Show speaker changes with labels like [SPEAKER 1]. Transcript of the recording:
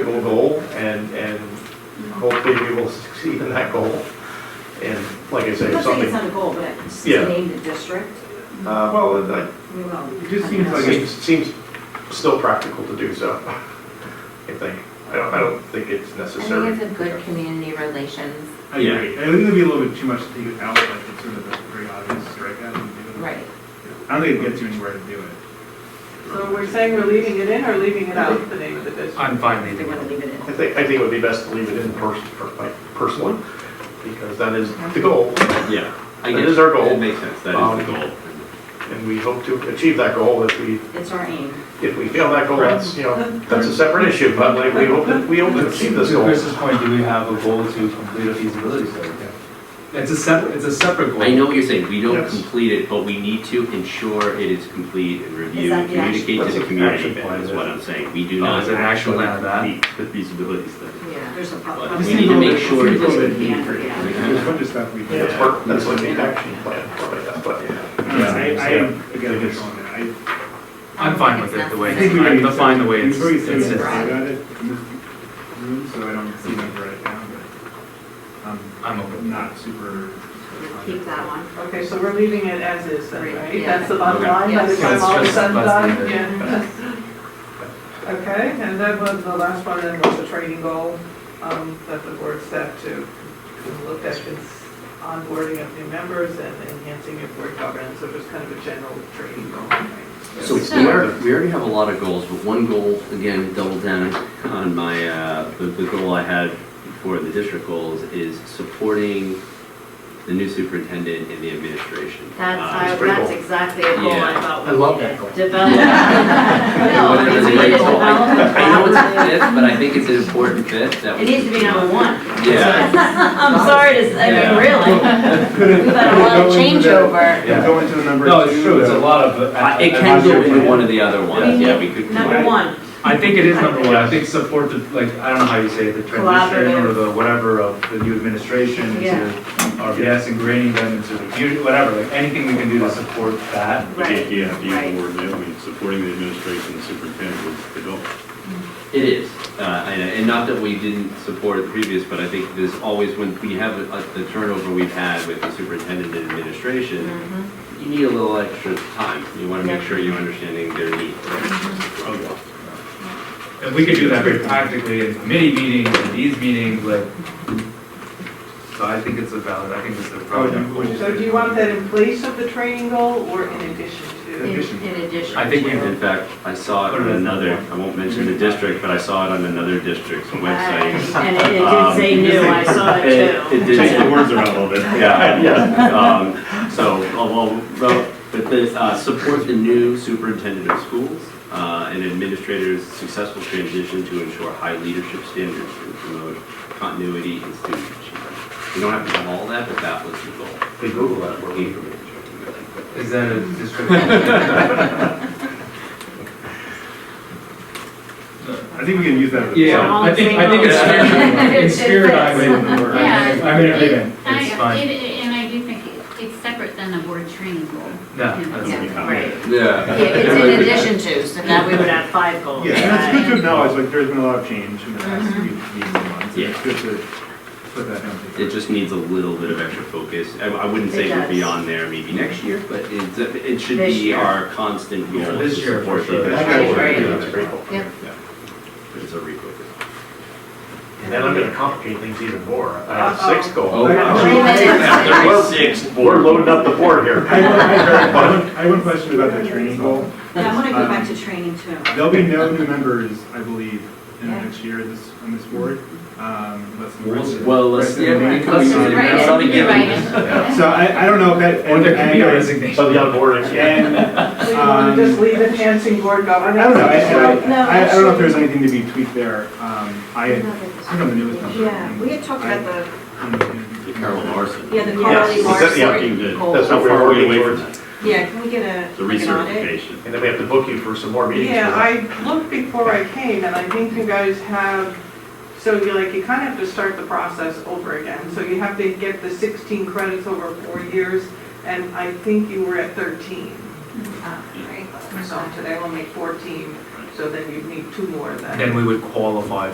[SPEAKER 1] a goal and, and hopefully we will succeed in that goal. And like I say,
[SPEAKER 2] I'm
[SPEAKER 1] if
[SPEAKER 2] not saying
[SPEAKER 1] something,
[SPEAKER 2] it's not a goal, but it's
[SPEAKER 1] Yeah.
[SPEAKER 2] named a district,
[SPEAKER 1] uh, well, it
[SPEAKER 2] we will.
[SPEAKER 3] It just
[SPEAKER 2] I
[SPEAKER 3] seems
[SPEAKER 2] guess.
[SPEAKER 1] I-
[SPEAKER 3] like
[SPEAKER 1] seems, seems still practical to do so. I think, I don't, I don't think it's
[SPEAKER 4] I think
[SPEAKER 1] necessary.
[SPEAKER 4] it's a good community relations,
[SPEAKER 3] I
[SPEAKER 1] Yeah.
[SPEAKER 3] agree. I think it'd be a little bit too much to take it out, like it's sort of a pretty obvious strikeout. and do it.
[SPEAKER 4] right.
[SPEAKER 3] I don't think it gets you anywhere to do it.
[SPEAKER 5] So we're saying we're leaving it in or leaving it out, the name of the district?
[SPEAKER 6] I'm fine
[SPEAKER 2] They
[SPEAKER 6] leaving
[SPEAKER 2] want
[SPEAKER 6] it.
[SPEAKER 2] to leave it in.
[SPEAKER 1] I think, I think it would be best to leave it in person, per- like, personally, because that is the goal.
[SPEAKER 7] Yeah. I
[SPEAKER 1] That
[SPEAKER 7] guess
[SPEAKER 1] is our goal.
[SPEAKER 7] It makes sense, that is the
[SPEAKER 1] Um,
[SPEAKER 7] goal.
[SPEAKER 1] And we hope to achieve that goal if we,
[SPEAKER 2] It's our aim.
[SPEAKER 1] if we fail that goal, that's, you know, that's a separate issue, but like, we hope, that- we hope to achieve this
[SPEAKER 8] To
[SPEAKER 1] goal.
[SPEAKER 8] Chris's point, do we have a goal to complete a feasibility study?
[SPEAKER 6] It's a separate, it's a separate goal.
[SPEAKER 7] I know what you're saying, we don't
[SPEAKER 1] Yes.
[SPEAKER 7] complete it, but we need to ensure it is complete and reviewed,
[SPEAKER 2] that the action-
[SPEAKER 7] communicate to
[SPEAKER 1] That's
[SPEAKER 7] the
[SPEAKER 1] an action
[SPEAKER 7] community,
[SPEAKER 1] plan,
[SPEAKER 7] is
[SPEAKER 1] is
[SPEAKER 7] what
[SPEAKER 1] it?
[SPEAKER 7] I'm saying. We do
[SPEAKER 6] Oh,
[SPEAKER 7] not
[SPEAKER 6] is it an action
[SPEAKER 7] actually
[SPEAKER 6] plan on
[SPEAKER 7] complete the feasibility study.
[SPEAKER 4] Yeah.
[SPEAKER 2] There's a
[SPEAKER 7] But
[SPEAKER 2] problem.
[SPEAKER 7] we need to make sure it is complete.
[SPEAKER 3] There's a bunch of stuff we do.
[SPEAKER 1] That's part, that's like the action plan, like that, but.
[SPEAKER 3] I don't know, I, I am, again, I'm just on that. I
[SPEAKER 6] I'm fine with it the way,
[SPEAKER 3] I
[SPEAKER 4] I
[SPEAKER 3] think we
[SPEAKER 6] I'm
[SPEAKER 3] already.
[SPEAKER 6] gonna find the way it's,
[SPEAKER 3] We've already said
[SPEAKER 6] it's,
[SPEAKER 3] we
[SPEAKER 4] it's-
[SPEAKER 3] got it in this room, so I don't see them right now, but um, I'm
[SPEAKER 6] I'm open.
[SPEAKER 3] not super.
[SPEAKER 4] Keep that one.
[SPEAKER 5] Okay, so we're leaving it as is, then, right?
[SPEAKER 4] Yeah.
[SPEAKER 5] That's the bottom line, by the
[SPEAKER 6] Yeah.
[SPEAKER 5] time all is said and
[SPEAKER 6] Let's just-
[SPEAKER 5] done,
[SPEAKER 6] let's
[SPEAKER 5] yeah.
[SPEAKER 6] leave it.
[SPEAKER 5] Okay, and then was the last one, then was the training goal, um, that the board set to look at this onboarding of new members and enhancing your board governance, so just kind of a general training goal. right?
[SPEAKER 7] So we are, we already have a lot of goals, but one goal, again, double down on my, uh, the, the goal I had for the district goals is supporting the new superintendent and the administration. Uh,
[SPEAKER 4] That's,
[SPEAKER 1] pretty
[SPEAKER 4] that's
[SPEAKER 1] cool.
[SPEAKER 4] exactly a goal I
[SPEAKER 7] Yeah.
[SPEAKER 4] thought.
[SPEAKER 6] I love that goal.
[SPEAKER 4] Develop. No, I mean, we need to
[SPEAKER 7] Well, I-
[SPEAKER 4] develop.
[SPEAKER 7] I know it's fifth, but I think it's an important fifth
[SPEAKER 4] It
[SPEAKER 7] that we.
[SPEAKER 4] needs to be number one.
[SPEAKER 7] Yeah.
[SPEAKER 4] I'm sorry to, say- I mean,
[SPEAKER 7] Yeah.
[SPEAKER 4] really.
[SPEAKER 8] We've
[SPEAKER 4] We've had a lot of changeover.
[SPEAKER 8] Yeah.
[SPEAKER 3] Go into the number two.
[SPEAKER 8] No, it's true, it's a
[SPEAKER 3] though.
[SPEAKER 8] lot of.
[SPEAKER 7] Uh, It can go into one of the other ones, yeah, we could.
[SPEAKER 4] Number one,
[SPEAKER 6] I think it is number one, I think support the, like, I don't know how you say it, the transition
[SPEAKER 4] Collaborative.
[SPEAKER 6] or the whatever of the new administration
[SPEAKER 4] Yeah.
[SPEAKER 6] to RBS, ingraining them into the community, whatever, like, anything we can do to support that.
[SPEAKER 4] right.
[SPEAKER 9] Yeah,
[SPEAKER 4] Right.
[SPEAKER 9] being board, I mean, supporting the administration, the superintendent was the goal.
[SPEAKER 7] It is, uh, and, and not that we didn't support it previous, but I think there's always, when we have uh, the turnover we've had with the superintendent and administration,
[SPEAKER 4] Mhm.
[SPEAKER 7] you need a little extra time, you wanna make
[SPEAKER 4] Yeah.
[SPEAKER 7] sure you're understanding their needs.
[SPEAKER 6] And we could do that very practically in committee meetings, in these meetings, like, so I think it's a valid, I think it's a
[SPEAKER 3] Would
[SPEAKER 6] valid
[SPEAKER 3] you- would
[SPEAKER 6] goal.
[SPEAKER 3] you
[SPEAKER 5] So
[SPEAKER 3] say-
[SPEAKER 5] do you want that in place of the training goal or in addition
[SPEAKER 4] In
[SPEAKER 5] to?
[SPEAKER 6] Addition.
[SPEAKER 4] in addition.
[SPEAKER 6] I think we
[SPEAKER 4] to-
[SPEAKER 7] In fact, I saw it on another, I won't mention the district, but I saw it on another district's website.
[SPEAKER 2] And it did say new, I saw it
[SPEAKER 7] It
[SPEAKER 2] too.
[SPEAKER 7] it did
[SPEAKER 9] Change the words around a little bit.
[SPEAKER 7] Yeah, yeah. Um, So, uh, well, well, but this, uh, support the new superintendent of schools uh, and administrators' successful transition to ensure high leadership standards and promote continuity in student achievement. We don't have to do all that, but that was the goal.
[SPEAKER 1] They Google that,
[SPEAKER 7] We're
[SPEAKER 1] we're
[SPEAKER 7] looking
[SPEAKER 1] leaving.
[SPEAKER 7] for it.
[SPEAKER 6] Is that a district? Yeah,
[SPEAKER 3] I think we can use that. as a-
[SPEAKER 6] I think, I think it's, in spirit, I would,
[SPEAKER 10] Yeah.
[SPEAKER 6] I'm in agreement,
[SPEAKER 10] I-
[SPEAKER 6] it's fine.
[SPEAKER 10] it- And I do think it- it's separate than a board training goal.
[SPEAKER 6] No,
[SPEAKER 10] You know,
[SPEAKER 6] that's-
[SPEAKER 4] Yeah, right.
[SPEAKER 7] Yeah.
[SPEAKER 4] Yeah, it's in addition to, so now we would have five goals.
[SPEAKER 3] Yeah, and it's good to acknowledge, like, there's been a lot of change in the past few
[SPEAKER 2] Mm-hmm.
[SPEAKER 3] meetings and months. and It's good to put that down.
[SPEAKER 7] It just needs a little bit of extra focus. I I wouldn't say
[SPEAKER 4] It
[SPEAKER 7] we're
[SPEAKER 4] does.
[SPEAKER 7] beyond there maybe next year, but it's- it should
[SPEAKER 4] This
[SPEAKER 7] be
[SPEAKER 4] year.
[SPEAKER 7] our constant goal.
[SPEAKER 6] Yeah, this
[SPEAKER 7] to
[SPEAKER 6] year,
[SPEAKER 7] support
[SPEAKER 6] for sure.
[SPEAKER 7] the-
[SPEAKER 1] That's
[SPEAKER 4] Right, right.
[SPEAKER 1] Yeah, that's pretty cool.
[SPEAKER 4] Yep.
[SPEAKER 7] It's a refocus.
[SPEAKER 1] And then I'm gonna complicate things even more. I have a sixth
[SPEAKER 7] Oh,
[SPEAKER 1] goal.
[SPEAKER 4] Wait a minute.
[SPEAKER 7] Thirty-six,
[SPEAKER 1] We're loading up the board here.
[SPEAKER 3] I have- I have one- I have one question about the training goal. Um,
[SPEAKER 2] Yeah, I want to go back to training too.
[SPEAKER 3] There'll be no new members, I believe, in the
[SPEAKER 4] Yeah.
[SPEAKER 3] next year this, on this board. Um, let's-
[SPEAKER 7] Well, let's, yeah, we can, we can,
[SPEAKER 4] Right,
[SPEAKER 7] that's something
[SPEAKER 4] you're
[SPEAKER 7] given.
[SPEAKER 4] right.
[SPEAKER 3] So I, I don't know if that.
[SPEAKER 6] Or there could be a
[SPEAKER 3] and-
[SPEAKER 6] resignation.
[SPEAKER 1] So the onboarding, yeah.
[SPEAKER 3] And,
[SPEAKER 5] So you want to just leave enhancing
[SPEAKER 3] Um,
[SPEAKER 5] board
[SPEAKER 3] I
[SPEAKER 5] governance?
[SPEAKER 3] don't know, I,
[SPEAKER 2] No,
[SPEAKER 3] I, I don't know if there's anything to be tweaked there. Um, I, I don't know the newest number.
[SPEAKER 2] Yeah, we had talked about the,
[SPEAKER 7] The Carol Larson.
[SPEAKER 2] yeah, the Carly
[SPEAKER 1] Yes, that's the
[SPEAKER 2] Morrison.
[SPEAKER 1] update.
[SPEAKER 2] goal.
[SPEAKER 1] That's what
[SPEAKER 7] How
[SPEAKER 1] we're
[SPEAKER 7] far are
[SPEAKER 1] working
[SPEAKER 7] we away from
[SPEAKER 1] towards.
[SPEAKER 7] that?
[SPEAKER 2] Yeah, can we get a,
[SPEAKER 9] The
[SPEAKER 2] like an audit?
[SPEAKER 9] recertification.
[SPEAKER 1] And then we have to book you for some more meetings.
[SPEAKER 5] Yeah,
[SPEAKER 1] for that.
[SPEAKER 5] I looked before I came, and I think you guys have, so you're like, you kind of have to start the process over again. So you have to get the 16 credits over four years, and I think you were at 13.
[SPEAKER 2] Ah, right.
[SPEAKER 5] So today we'll make 14, so then you need two more then.
[SPEAKER 6] Then we would qualify